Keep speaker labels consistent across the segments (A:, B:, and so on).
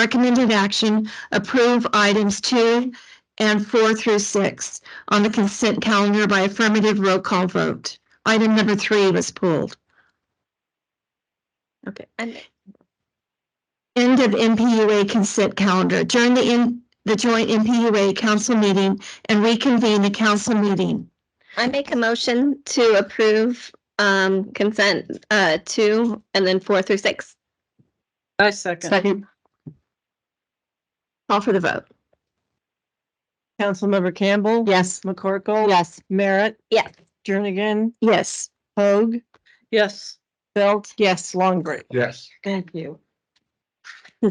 A: recommended action, approve items two and four through six on the consent calendar by affirmative roll call vote. Item number three was pulled.
B: Okay, and
A: End of MPUA consent calendar. Adjourn the in, the joint MPUA council meeting and reconvene the council meeting.
B: I make a motion to approve um consent uh two and then four through six.
C: I second.
A: Second.
B: Call for the vote.
C: Councilmember Campbell.
A: Yes.
C: McCorkle.
A: Yes.
C: Merritt.
B: Yes.
C: Jernigan.
A: Yes.
C: Hoag. Yes. Belt.
A: Yes.
C: Longbridge.
D: Yes.
C: Thank you.
A: Uh,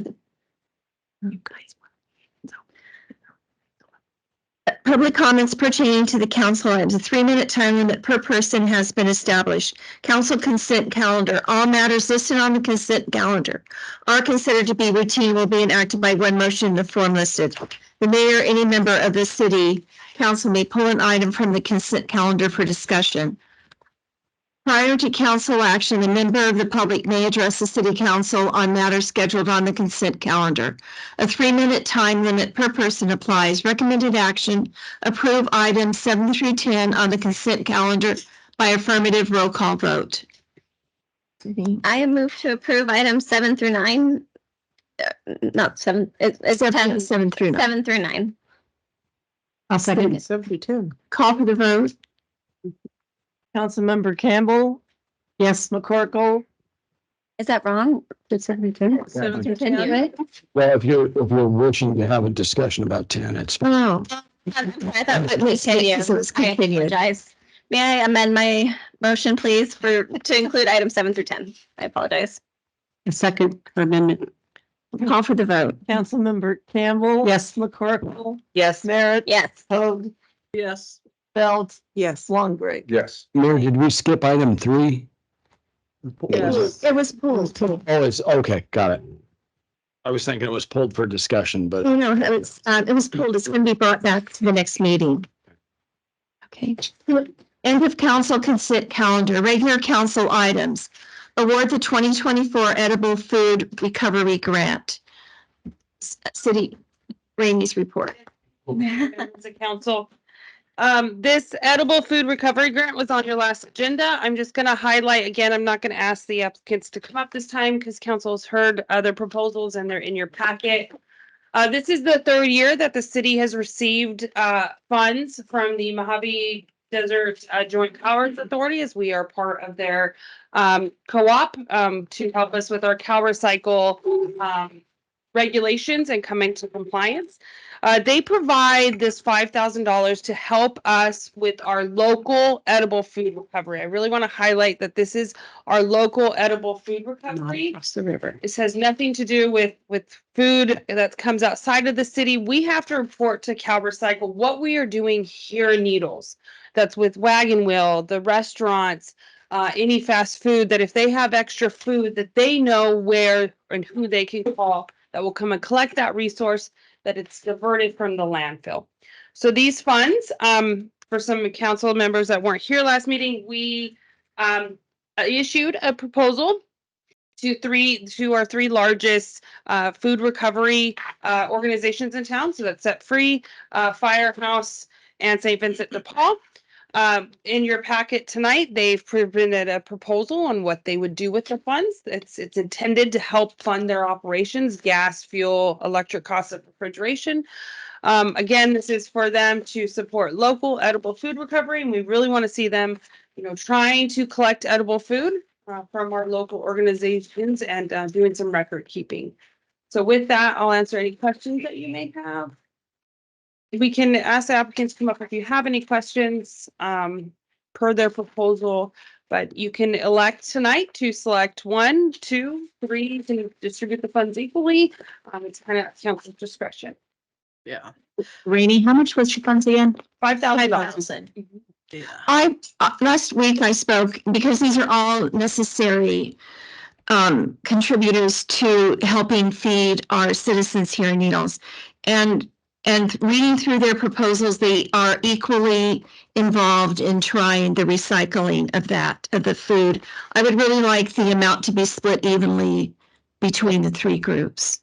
A: Public comments pertaining to the council items, a three-minute time limit per person has been established. Council consent calendar, all matters listed on the consent calendar are considered to be routine will be enacted by one motion in the form listed. The mayor, or any member of the city council may pull an item from the consent calendar for discussion. Prior to council action, a member of the public may address the city council on matters scheduled on the consent calendar. A three-minute time limit per person applies. Recommended action, approve items seven through ten on the consent calendar by affirmative roll call vote.
B: I have moved to approve items seven through nine. Uh, Not seven, it's it's ten,
A: Seven, seven through nine.
B: seven through nine.
A: I'll second it.
C: Seventy-two.
A: Call for the vote?
C: Councilmember Campbell. Yes. McCorkle.
B: Is that wrong?
D: Seven
C: through
B: Continue it?
D: Well, if you're, if we're wishing to have a discussion about ten, it's.
A: Oh,
B: Um, I thought it
A: Wait,
B: was
A: say it,
B: continued.
A: so it's
B: I
A: continued.
B: apologize. May I amend my motion, please, for, to include items seven through ten? I apologize.
C: Second amendment.
A: call for the vote.
C: Councilmember Campbell. Yes. McCorkle. Yes. Merritt.
B: Yes.
C: Hoag. Yes. Belt. Yes. Longbridge.
D: Yes. Mayor, did we skip item three?
C: Yes.
A: It was pulled.
D: Oh, it's, okay, got it. I was thinking it was pulled for discussion, but
A: No, no, it was, um, it was pulled. It's going to be brought back to the next meeting. Okay. End of council consent calendar, regular council items. Award the twenty twenty-four edible food recovery grant. S- City Rainey's report.
E: members of council. Um, this edible food recovery grant was on your last agenda. I'm just gonna highlight again, I'm not gonna ask the applicants to come up this time because council's heard other proposals and they're in your packet. Uh, this is the third year that the city has received, uh, funds from the Mojave Desert uh, Joint Powers Authority as we are part of their, um, co-op, um, to help us with our cow recycle, um, regulations and come into compliance. Uh, they provide this five thousand dollars to help us with our local edible food recovery. I really want to highlight that this is our local edible food recovery.
C: the river.
E: This has nothing to do with, with food that comes outside of the city. We have to report to Cal Recycle what we are doing here in Needles. That's with Wagon Wheel, the restaurants, uh, any fast food, that if they have extra food, that they know where and who they can call that will come and collect that resource, that it's diverted from the landfill. So these funds, um, for some council members that weren't here last meeting, we, um, issued a proposal to three to our three largest uh, food recovery uh, organizations in town. So that's Set Free, uh, Firehouse, and St. Vincent de Paul. Um, in your packet tonight, they've presented a proposal on what they would do with the funds. It's it's intended to help fund their operations, gas, fuel, electric costs of refrigeration. Um, again, this is for them to support local edible food recovery, and we really want to see them, you know, trying to collect edible food uh, from our local organizations and uh, doing some record keeping. So with that, I'll answer any questions that you may have. We can ask the applicants to come up if you have any questions um, per their proposal, but you can elect tonight to select one, two, three, you can distribute the funds equally. Um, It's kind of council discretion.
C: Yeah.
A: Rainey, how much was your funds again?
E: Five thousand dollars.
B: thousand.
C: Yeah.
A: I, uh, last week I spoke, because these are all necessary um, contributors to helping feed our citizens here in Needles. And, and reading through their proposals, they are equally involved in trying the recycling of that, of the food. I would really like the amount to be split evenly between the three groups.